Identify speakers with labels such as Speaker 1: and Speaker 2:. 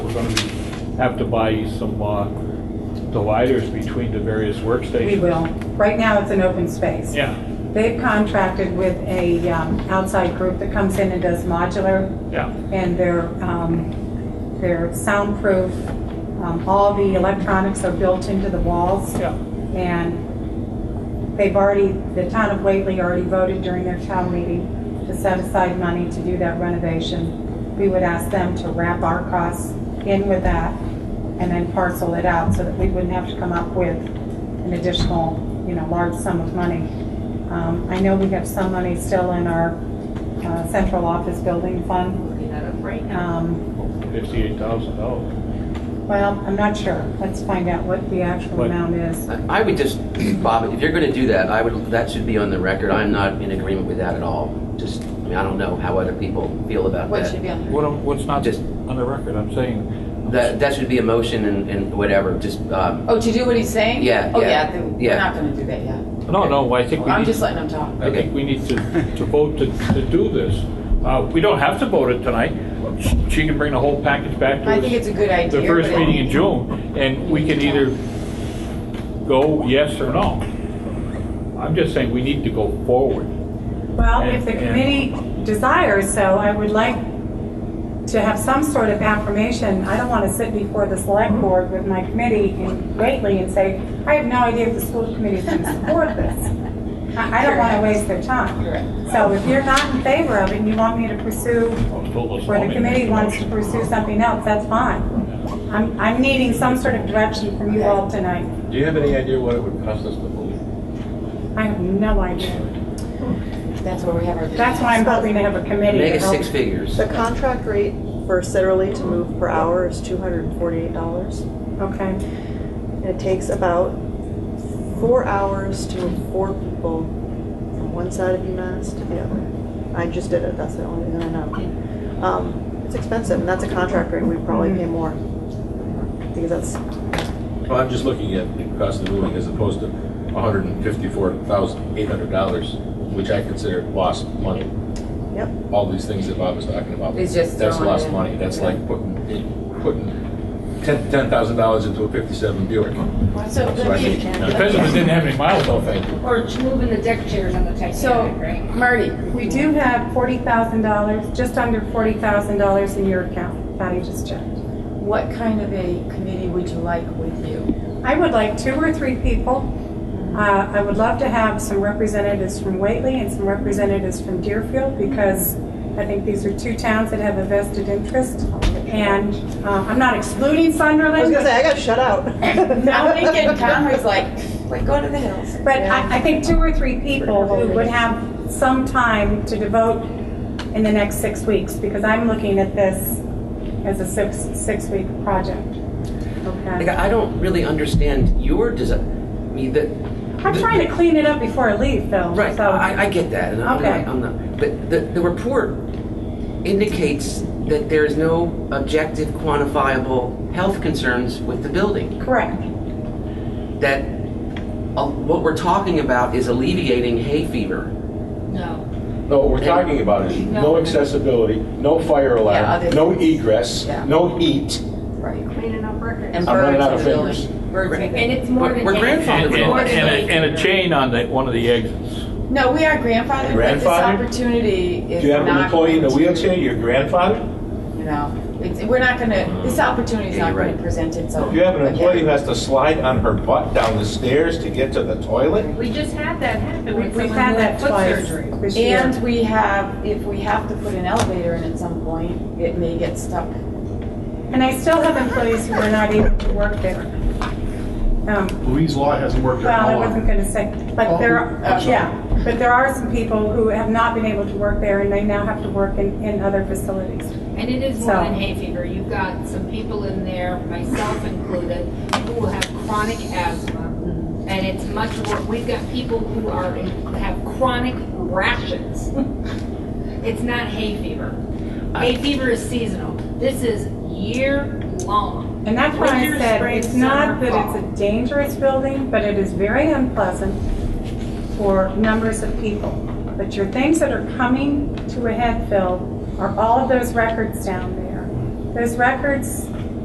Speaker 1: we're gonna be, have to buy some uh, dividers between the various workstations.
Speaker 2: We will. Right now, it's an open space.
Speaker 1: Yeah,
Speaker 2: They've contracted with a um, outside group that comes in and does modular,
Speaker 1: yeah,
Speaker 2: and they're, um, they're soundproof. Um, All the electronics are built into the walls,
Speaker 1: yeah.
Speaker 2: and they've already, the town of Whately already voted during their town meeting to set aside money to do that renovation. We would ask them to wrap our costs in with that and then parcel it out so that we wouldn't have to come up with an additional, you know, large sum of money. Um, I know we have some money still in our uh, central office building fund.
Speaker 3: looking that up right now.
Speaker 2: Um,
Speaker 1: Fifty-eight thousand dollars.
Speaker 2: Well, I'm not sure. Let's find out what the actual
Speaker 1: What-
Speaker 2: amount is.
Speaker 4: I I would just, Bob, if you're going to do that, I would, that should be on the record. I'm not in agreement with that at all. Just, I mean, I don't know how other people feel about
Speaker 3: What should
Speaker 4: that.
Speaker 3: be on there?
Speaker 1: What, I'm- what's not
Speaker 4: Just-
Speaker 1: on the record, I'm saying.
Speaker 4: That, that should be a motion and, and whatever, just, um,
Speaker 3: Oh, to do what he's saying?
Speaker 4: Yeah,
Speaker 3: Oh,
Speaker 4: yeah,
Speaker 3: yeah, then we're
Speaker 4: yeah.
Speaker 3: not gonna do that yet.
Speaker 1: No, no, I think we
Speaker 3: I'm
Speaker 1: need,
Speaker 3: just letting him talk.
Speaker 1: I think we need to, to vote to, to do this. Uh, we don't have to vote it tonight. She can bring the whole package back to us.
Speaker 3: I think it's a good idea.
Speaker 1: the first
Speaker 3: but-
Speaker 1: meeting in June, and we can either go yes or no. I'm just saying, we need to go forward.
Speaker 2: Well, if the
Speaker 1: And- and-
Speaker 2: committee desires so, I would like to have some sort of affirmation. I don't want to sit before the select
Speaker 1: Mm-hmm.
Speaker 2: board with my committee and greatly and say, I have no idea if the school committee is going to support this. I I don't want to waste their
Speaker 3: Correct.
Speaker 2: time. So if you're not in favor of it and you want me to pursue, or the committee wants to pursue something else, that's fine. I'm, I'm needing some sort of direction from you all tonight.
Speaker 5: Do you have any idea what it would cost us to move?
Speaker 2: I have no idea.
Speaker 3: That's where we have our.
Speaker 2: That's why I'm hoping to have a committee. to
Speaker 4: make it
Speaker 2: help-
Speaker 4: six figures.
Speaker 6: The contract rate for Citrally to move per hour is $248.
Speaker 2: Okay.
Speaker 6: And it takes about four hours to move four people from one side of UMass to the other. I just did it, that's the only thing I know. Um, It's expensive, and that's a contract rate, we probably pay more. Because that's,
Speaker 5: Well, I'm just looking at the cost of moving as opposed to $154,800, which I consider lost money.
Speaker 6: yep,
Speaker 5: All these things that Bob was talking about.
Speaker 3: It's just
Speaker 5: That's
Speaker 3: throwing
Speaker 5: lost
Speaker 3: it.
Speaker 5: money. That's like putting, putting ten- $10,000 into a 57 Buick.
Speaker 7: So
Speaker 5: So I
Speaker 7: let me,
Speaker 5: think- no.
Speaker 1: Depends if it didn't have any miles
Speaker 5: No,
Speaker 1: on
Speaker 5: thank you.
Speaker 7: or just moving the deck chairs on the
Speaker 3: So,
Speaker 7: Titanic, right?
Speaker 3: Marty,
Speaker 2: We do have forty thousand dollars, just under forty thousand dollars in your account, Patty just checked.
Speaker 3: what kind of a committee would you like with you?
Speaker 2: I would like two or three people. Uh, I would love to have some representatives from Whately and some representatives from Deerfield because I think these are two towns that have a vested interest. And uh, I'm not excluding Sunderland.
Speaker 6: I was gonna say, I got shut out.
Speaker 3: I'm thinking Conway's like, like, go to the hills.
Speaker 2: But I, I think two or three people who would have some time to devote in the next six weeks, because I'm looking at this as a six, six-week project.
Speaker 4: Like,
Speaker 2: Okay?
Speaker 4: I I don't really understand your design, I mean, the.
Speaker 2: I'm trying to clean it up before I leave, Phil.
Speaker 4: Right,
Speaker 2: so-
Speaker 4: I, I get that, and I'm
Speaker 2: Okay.
Speaker 4: not, I'm not, but the, the report indicates that there is no objective quantifiable health concerns with the building.
Speaker 2: Correct.
Speaker 4: that uh, what we're talking about is alleviating hay fever.
Speaker 7: No.
Speaker 5: No, what we're talking about is no
Speaker 7: No.
Speaker 5: accessibility, no
Speaker 3: Yeah,
Speaker 5: fire
Speaker 3: other
Speaker 5: alarm, no
Speaker 3: things.
Speaker 5: egress,
Speaker 3: Yeah.
Speaker 5: no heat.
Speaker 3: Right.
Speaker 7: Cleaning up records.
Speaker 3: And
Speaker 5: I'm running
Speaker 3: birds
Speaker 5: out
Speaker 3: in
Speaker 5: of
Speaker 3: the building.
Speaker 5: fingers.
Speaker 3: Birds in the
Speaker 7: And
Speaker 3: building.
Speaker 7: it's more
Speaker 4: We're-
Speaker 7: than.
Speaker 4: we're
Speaker 7: eight.
Speaker 4: grandfathered
Speaker 1: And,
Speaker 4: in.
Speaker 7: More
Speaker 1: and,
Speaker 7: than eight.
Speaker 1: and a, and a chain on the, one of the exits.
Speaker 3: No, we are grandfathered, but this
Speaker 5: Grandfathered?
Speaker 3: opportunity is not.
Speaker 5: Do you have an employee in a
Speaker 3: going to-
Speaker 5: wheelchair, your grandfather?
Speaker 3: You know, it's, we're not gonna, this opportunity's
Speaker 4: Yeah,
Speaker 3: not
Speaker 4: you're
Speaker 3: gonna
Speaker 4: right.
Speaker 3: present itself.
Speaker 5: If you have an employee who
Speaker 3: again.
Speaker 5: has to slide on her butt down the stairs to get to the toilet,
Speaker 7: We just had that happen
Speaker 2: We-
Speaker 7: when
Speaker 2: We've
Speaker 7: someone
Speaker 2: had
Speaker 7: had
Speaker 2: that
Speaker 7: foot
Speaker 2: twice
Speaker 7: surgery.
Speaker 2: this year.
Speaker 3: And we have, if we have to put an elevator in at some point, it may get stuck.
Speaker 2: And I still have employees who are not able to work there. Um,
Speaker 8: Louise Law hasn't worked there
Speaker 2: Well,
Speaker 8: how
Speaker 2: I
Speaker 8: long?
Speaker 2: wasn't going to say, but
Speaker 8: Oh,
Speaker 2: there, are-
Speaker 3: I'm sorry.
Speaker 2: yeah, but there are some people who have not been able to work there, and they now have to work in, in other facilities.
Speaker 7: And it is more
Speaker 2: So-
Speaker 7: than hay fever. You've got some people in there, myself included, who have chronic asthma.
Speaker 2: Mm-hmm.
Speaker 7: And it's much more, we've got people who are, have chronic rashes. It's not hay fever.
Speaker 2: Uh,
Speaker 7: Hay fever is seasonal. This is year-long.
Speaker 2: And that's why I
Speaker 7: Winter,
Speaker 2: said,
Speaker 7: spring,
Speaker 2: it's not
Speaker 7: summer,
Speaker 2: that it's a dangerous building, but it is very unpleasant for numbers of people. But your things that are coming to a head, Phil, are all of those records down there. Those records